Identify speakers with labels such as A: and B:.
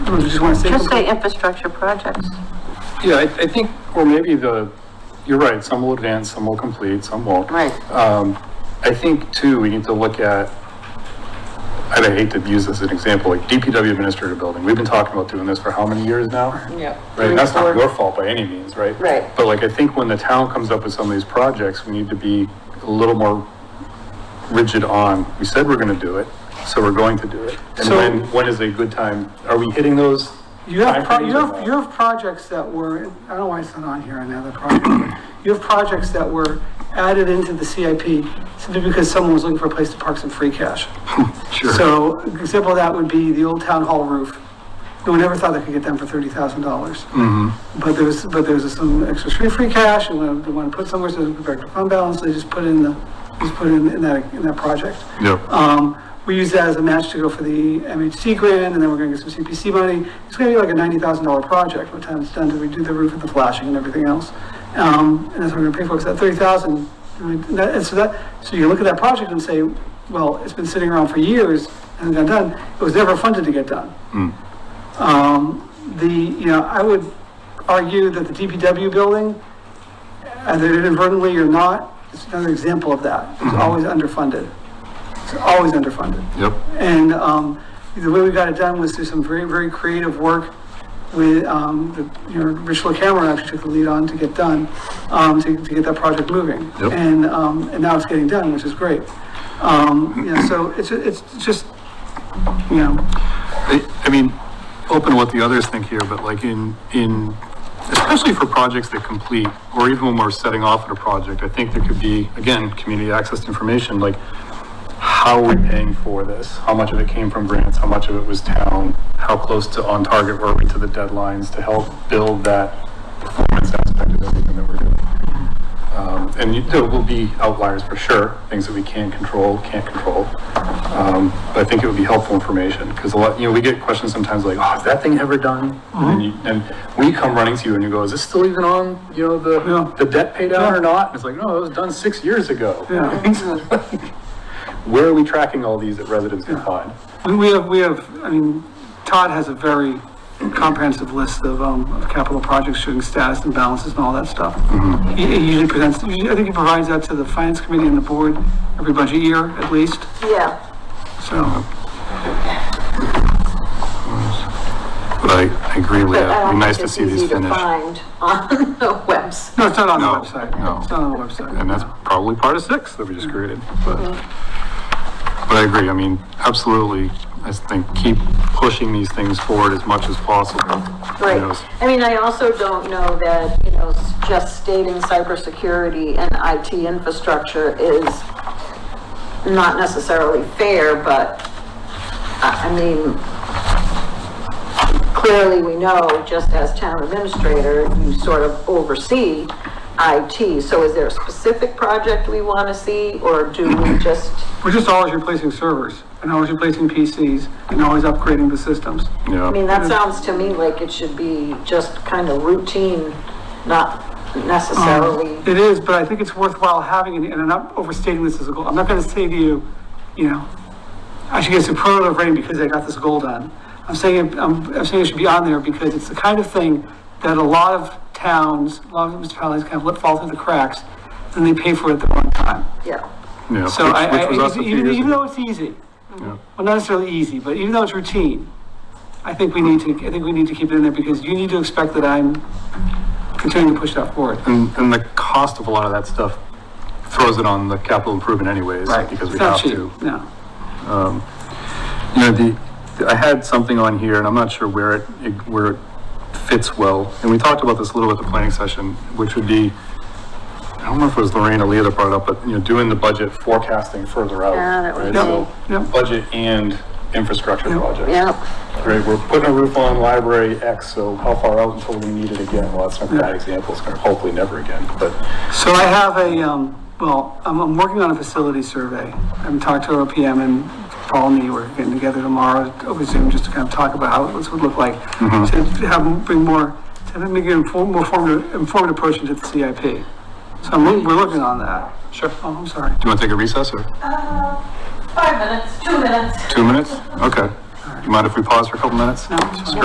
A: Did you want to say
B: Just
A: something?
B: say infrastructure projects.
A: Yeah, I, I think, or maybe the, you're right, some will advance, some will complete, some won't. Um,
B: Right.
A: I think too, we need to look at, and I hate to use this as an example, like DPW administrative building. We've been talking about doing this for how many years now?
C: Yeah.
A: Right, and that's not your fault by any means, right?
C: Right.
A: But like, I think when the town comes up with some of these projects, we need to be a little more rigid on, we said we're gonna do it, so we're going to do it. And
D: So-
A: when, when is a good time? Are we hitting those?
D: You have, pro-
A: timeframes
D: you
A: or
D: have,
A: not?
D: you have projects that were, I don't know why it's not on here, another project. but You have projects that were added into the CIP simply because someone was looking for a place to park some free cash. So example of that would be the old town hall roof. No one ever thought they could get done for thirty thousand dollars. But there's, but there's some extra free, free cash and when they want to put somewhere, so they compared to fund balance, they just put in the, just put in, in that, in that project.
A: Yeah,
D: Um, we use that as a match to go for the MHC grant, and then we're gonna get some CPC money. It's gonna be like a ninety thousand dollar project, by the time it's done, do we do the roof and the flashing and everything else? Um, and that's what we're gonna pay for, because that thirty thousand, and that- and so that, so you look at that project and say, well, it's been sitting around for years and it got done, it was never funded to get done. Um, the, you know, I would argue that the DPW building, either inadvertently or not, it's another example of that, it's always underfunded. It's always underfunded.
A: yep.
D: And um, the way we got it done was through some very, very creative work with, um, the- you know, Rich LaCamera actually took the lead on to get done, um, to to get that project moving.
A: Yep.
D: And, um, and now it's getting done, which is great. Um, You know, so it's, it's just, you know,
A: I I mean, open what the others think here, but like in, in, especially for projects that complete, or even when we're setting off at a project, I think there could be, again, community access to information, like, how are we paying for this? How much of it came from grants? How much of it was town? How close to on target were we to the deadlines to help build that performance aspect of everything that we're doing? Um, and you- there will be outliers for sure, things that we can control, can't control. Um, but I think it would be helpful information, because a lot, you know, we get questions sometimes like, oh, is that thing ever done?
D: Mm-hmm.
A: And you, and we come running to you and you go, is this still even on, you know,
D: Yeah.
A: the, the debt pay down
D: Yeah.
A: or not? And it's like, no, it was done six years ago.
D: Yeah.
A: Where are we tracking all these that residents can find?
D: we- we have, we have, I mean, Todd has a very comprehensive list of um, of capital projects, showing status and balances and all that stuff.
A: Mm-hmm.
D: He he usually presents, usually- I think he provides that to the finance committee and the board every budget year at least,
B: Yeah.
D: so.
A: But I, I agree,
B: But
A: Leah,
B: I don't
A: it'd be nice
B: uh, think
A: to
B: it's
A: see these
B: easy to
A: finished.
B: Find on the webs.
D: No, it's not on the
A: No,
D: website.
A: no.
D: It's not on the website.
A: And that's probably part of six that we just created, but,
B: Mm-hmm.
A: but I agree, I mean, absolutely, I just think keep pushing these things forward as much as possible. You know,
B: Right. I mean, I also don't know that, you know, s- just stating cybersecurity and IT infrastructure is not necessarily fair, but I, I mean, clearly we know, just as town administrator, you sort of oversee IT. So is there a specific project we want to see or do we just,
D: We're just always replacing servers and always replacing PCs and always upgrading the systems.
A: Yeah.
B: I mean, that sounds to me like it should be just kind of routine, not necessarily.
D: Um, It is, but I think it's worthwhile having, it, and I'm not overstating this as a goal, I'm not gonna say to you, you know, I should get superlative rating because I got this goal done. I'm saying, it- I'm, I'm saying it should be on there because it's the kind of thing that a lot of towns, a lot of municipalities kind of let fall through the cracks, and they pay for it at the wrong time.
B: Yeah,
A: Yeah,
D: So
A: which-
D: I,
A: which was
D: I,
A: us a
D: even,
A: few years
D: even
A: ago.
D: though it's easy,
A: Yeah.
D: well, not necessarily easy, but even though it's routine, I think we need to, I think we need to keep it in there because you need to expect that I'm continuing to push that forward.
A: And, and the cost of a lot of that stuff throws it on the capital improvement anyways, because we
D: It's not
A: have
D: cheap,
A: to.
D: No.
A: You know, the, I had something on here and I'm not sure where it, it- where it fits well. And we talked about this a little at the planning session, which would be, I don't know if it was Lorraine or Leah that brought it up, but, you know, doing the budget forecasting further out.
B: Yeah, that would
A: right?
D: be-
A: So,
D: Yep.
A: Budget and infrastructure projects.
B: yeah,
A: Right, we're putting a roof on library X, so how far out until we need it again? Well, that's not a bad example, it's gonna hopefully never again, but,
D: So I have a, um, well, I'm, I'm working on a facility survey. I haven't talked to our PM and Paul and me, we're getting together tomorrow over Zoom just to kind of talk about how this would look like. To have, bring more, to make an inform, more formative, informed approach into the CIP. So I'm, loo- we're looking on that.
A: sure.
D: Oh, I'm sorry.
A: Do you want to take a recess or
B: Uh, five minutes, two minutes.
A: two minutes? Okay. You mind if we pause for a couple minutes?
D: No, I'm sorry.